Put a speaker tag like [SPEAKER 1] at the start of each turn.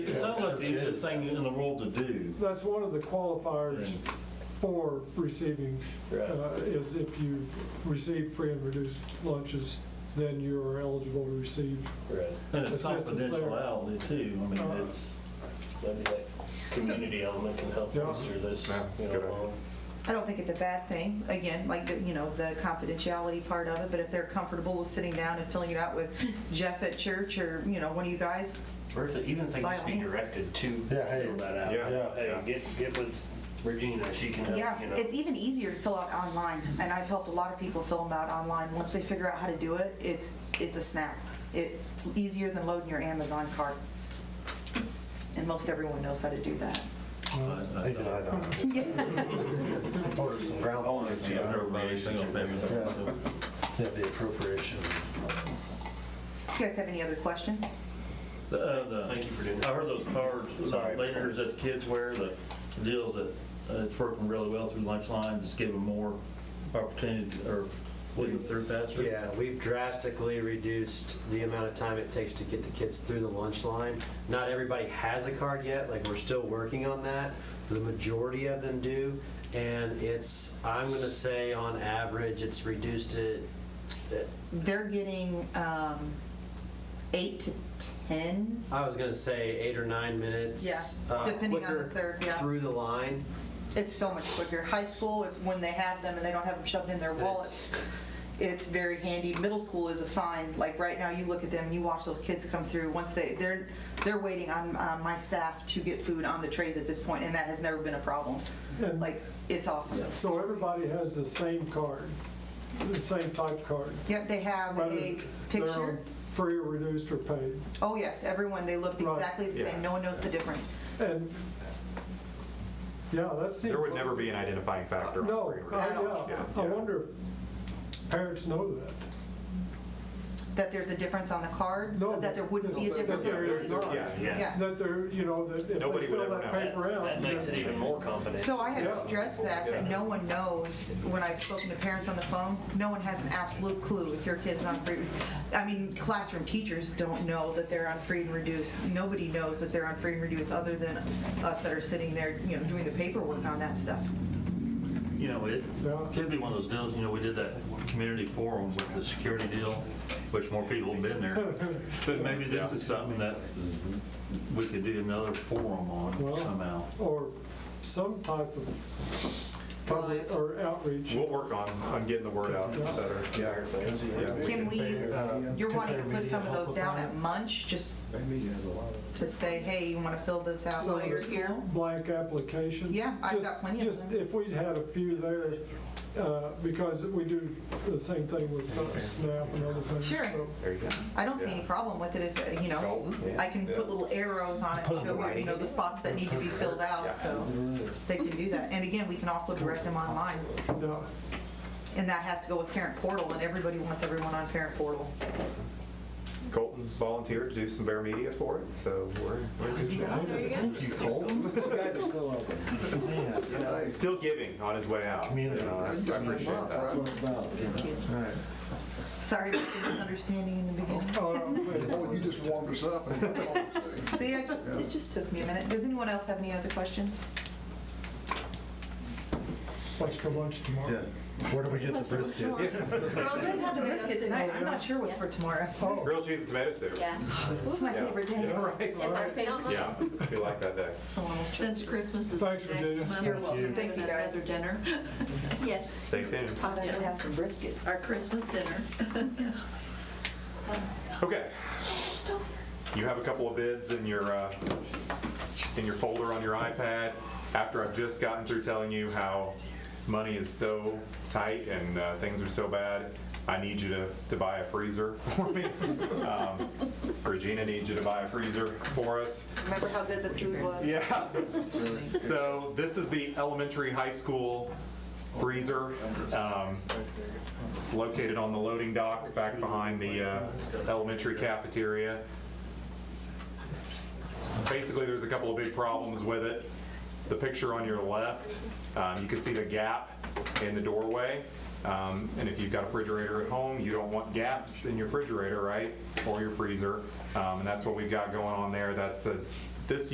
[SPEAKER 1] sounds like the easiest thing in the world to do.
[SPEAKER 2] That's one of the qualifiers for receiving,
[SPEAKER 1] Right.
[SPEAKER 2] uh, is if you receive free and reduced lunches, then you are eligible to receive.
[SPEAKER 3] Right,
[SPEAKER 1] And it's
[SPEAKER 2] Assistance there.
[SPEAKER 1] confidentiality too, I mean, it's,
[SPEAKER 3] maybe that community element can help
[SPEAKER 2] Yeah.
[SPEAKER 3] bolster this,
[SPEAKER 4] Yeah, that's
[SPEAKER 3] you
[SPEAKER 4] a good
[SPEAKER 3] know,
[SPEAKER 4] idea.
[SPEAKER 3] along.
[SPEAKER 5] I don't think it's a bad thing, again, like, the- you know, the confidentiality part of it, but if they're comfortable with sitting down and filling it out with Jeff at church or, you know, one of you guys,
[SPEAKER 3] Or if, it- even if they
[SPEAKER 5] By
[SPEAKER 3] just
[SPEAKER 5] all
[SPEAKER 3] be
[SPEAKER 5] means.
[SPEAKER 3] directed to
[SPEAKER 6] Yeah, hey,
[SPEAKER 3] fill that out.
[SPEAKER 4] yeah,
[SPEAKER 3] Hey,
[SPEAKER 4] yeah.
[SPEAKER 3] get, get with Regina, she can
[SPEAKER 5] yeah,
[SPEAKER 3] help, you know.
[SPEAKER 5] it's even easier to fill out online, and I've helped a lot of people fill them out online. Once they figure out how to do it, it's, it's a snap. It's easier than loading your Amazon cart. And most everyone knows how to do that.
[SPEAKER 1] I- I
[SPEAKER 6] even I don't. Order some ground.
[SPEAKER 4] Only if
[SPEAKER 6] beef,
[SPEAKER 4] you
[SPEAKER 6] yeah.
[SPEAKER 1] I've never made a single family.
[SPEAKER 6] Yeah. Yeah, the appropriations.
[SPEAKER 5] You guys have any other questions?
[SPEAKER 1] The, uh, the-
[SPEAKER 3] Thank you for doing
[SPEAKER 1] I
[SPEAKER 3] that.
[SPEAKER 1] heard those cards, the
[SPEAKER 6] Sorry.
[SPEAKER 1] lasers that the kids wear, the deals that, uh, it's working really well through lunch lines, just give them more opportunity to- or lead them through faster.
[SPEAKER 7] Yeah, we've drastically reduced the amount of time it takes to get the kids through the lunch line. Not everybody has a card yet, like, we're still working on that. The majority of them do, and it's, I'm gonna say on average, it's reduced it, uh,
[SPEAKER 5] They're getting um, eight to 10
[SPEAKER 7] I was gonna say eight or nine minutes.
[SPEAKER 5] Yeah,
[SPEAKER 7] uh,
[SPEAKER 5] depending on the
[SPEAKER 7] quicker
[SPEAKER 5] serve, yeah.
[SPEAKER 7] Through the line.
[SPEAKER 5] It's so much quicker. High school, if- when they have them and they don't have them shoved in their
[SPEAKER 7] It's-
[SPEAKER 5] wallets, it's very handy. Middle school is a find. Like right now, you look at them, you watch those kids come through. Once they, they're, they're waiting on uh, my staff to get food on the trays at this point, and that has never been a problem.
[SPEAKER 2] And-
[SPEAKER 5] Like, it's awesome.
[SPEAKER 2] So everybody has the same card, the same type card.
[SPEAKER 5] Yep, they have
[SPEAKER 2] whether
[SPEAKER 5] a
[SPEAKER 2] they're on
[SPEAKER 5] picture.
[SPEAKER 2] Free or reduced or paid.
[SPEAKER 5] Oh, yes, everyone, they looked
[SPEAKER 2] Right.
[SPEAKER 5] exactly the
[SPEAKER 4] Yeah.
[SPEAKER 5] same. No one knows the difference.
[SPEAKER 2] And, yeah, that seems.
[SPEAKER 4] There would never be an identifying factor. on
[SPEAKER 2] No,
[SPEAKER 4] free and
[SPEAKER 2] I-
[SPEAKER 4] reduced.
[SPEAKER 2] yeah, I wonder if parents know that.
[SPEAKER 5] That there's a difference on the cards,
[SPEAKER 2] No,
[SPEAKER 5] that there wouldn't be a
[SPEAKER 2] that- that
[SPEAKER 5] difference. on
[SPEAKER 2] there
[SPEAKER 5] the
[SPEAKER 2] is
[SPEAKER 5] business.
[SPEAKER 2] not.
[SPEAKER 4] Yeah, yeah.
[SPEAKER 5] Yeah.
[SPEAKER 2] That they're, you know, that if they
[SPEAKER 4] Nobody would
[SPEAKER 2] fill
[SPEAKER 4] ever
[SPEAKER 2] that
[SPEAKER 4] know.
[SPEAKER 2] paper
[SPEAKER 3] That-
[SPEAKER 2] out.
[SPEAKER 3] That makes it even more confident.
[SPEAKER 5] So I have
[SPEAKER 2] Yeah.
[SPEAKER 5] stressed that, that no one knows, when I've spoken to parents on the phone, no one has an absolute clue if your kid's on free. I mean, classroom teachers don't know that they're on free and reduced. Nobody knows that they're on free and reduced other than us that are sitting there, you know, doing the paperwork on that stuff.
[SPEAKER 1] You know, it
[SPEAKER 2] Yeah.
[SPEAKER 1] could be one of those deals, you know, we did that community forum with the security deal, which more people have been there. But maybe this is something that we could do another forum on
[SPEAKER 2] Well-
[SPEAKER 1] somehow.
[SPEAKER 2] Or some type of public or outreach.
[SPEAKER 4] We'll work on, on getting the word out better. Yeah. Yeah.
[SPEAKER 5] Can we,
[SPEAKER 6] Uh,
[SPEAKER 5] you're wanting to put some of those down
[SPEAKER 6] compare
[SPEAKER 5] at lunch, just
[SPEAKER 6] media has a lot of.
[SPEAKER 5] to say, hey, you want to fill this out
[SPEAKER 2] some
[SPEAKER 5] while
[SPEAKER 2] of
[SPEAKER 5] you're
[SPEAKER 2] the
[SPEAKER 5] here?
[SPEAKER 2] Blank applications.
[SPEAKER 5] Yeah, I've
[SPEAKER 2] Just-
[SPEAKER 5] got plenty of
[SPEAKER 2] just
[SPEAKER 5] them.
[SPEAKER 2] If we had a few there, uh, because we do the same thing with uh, SNAP and other things.
[SPEAKER 5] Sure.
[SPEAKER 2] so-
[SPEAKER 4] There you go.
[SPEAKER 5] I don't see any problem with it if, uh, you know, I can put little arrows on it, to show you, you know, the spots that need to be filled out, so they can do that. And again, we can also direct them online,
[SPEAKER 2] Yeah.
[SPEAKER 5] and that has to go with parent portal, and everybody wants everyone on parent portal.
[SPEAKER 4] Colton volunteered to do some bear media for it, so we're, we're
[SPEAKER 6] Thank you, Colton. You guys are still open. Yeah.
[SPEAKER 4] still giving on his way out. you know, I I appreciate
[SPEAKER 6] That's
[SPEAKER 4] that.
[SPEAKER 6] what it's about. All right.
[SPEAKER 5] Sorry about the misunderstanding in the beginning.
[SPEAKER 2] Uh,
[SPEAKER 8] Oh, you just warmed us up. and that's all I'm saying.
[SPEAKER 5] See, I just, it just took me a minute. Does anyone else have any other questions?
[SPEAKER 2] What's for lunch tomorrow?
[SPEAKER 6] Where do we get the brisket?
[SPEAKER 5] Oh,
[SPEAKER 9] Girls just have the biscuit
[SPEAKER 5] tonight.
[SPEAKER 9] tonight.
[SPEAKER 5] I'm not sure what's for tomorrow.
[SPEAKER 2] Oh,
[SPEAKER 4] Grilled cheese and tomato soup.
[SPEAKER 9] Yeah.
[SPEAKER 5] It's my favorite day.
[SPEAKER 4] Yeah, right.
[SPEAKER 9] It's our favorite.
[SPEAKER 4] Yeah, we like that day.
[SPEAKER 5] Someone will show.
[SPEAKER 10] Since Christmas is
[SPEAKER 2] Thanks,
[SPEAKER 10] next
[SPEAKER 2] Virginia.
[SPEAKER 10] month,
[SPEAKER 5] You're
[SPEAKER 10] we'll
[SPEAKER 5] welcome.
[SPEAKER 10] have
[SPEAKER 5] Thank you, guys.
[SPEAKER 10] Another dinner,
[SPEAKER 9] Yes.
[SPEAKER 4] Stay tuned.
[SPEAKER 5] Possibly have some brisket.
[SPEAKER 10] our Christmas dinner.
[SPEAKER 4] Okay, you have a couple of bids in your, uh, in your folder on your iPad, after I've just gotten through telling you how money is so tight and uh, things are so bad, I need you to, to buy a freezer for me. Um, Regina needs you to buy a freezer for us.
[SPEAKER 5] Remember how good the food was?
[SPEAKER 4] Yeah. So this is the elementary high school freezer. Um, It's located on the loading dock back behind the uh, elementary cafeteria. Basically, there's a couple of big problems with it. The picture on your left, um, you can see the gap in the doorway. Um, And if you've got a refrigerator at home, you don't want gaps in your refrigerator, right? Or your freezer. Um, And that's what we've got going on there. That's a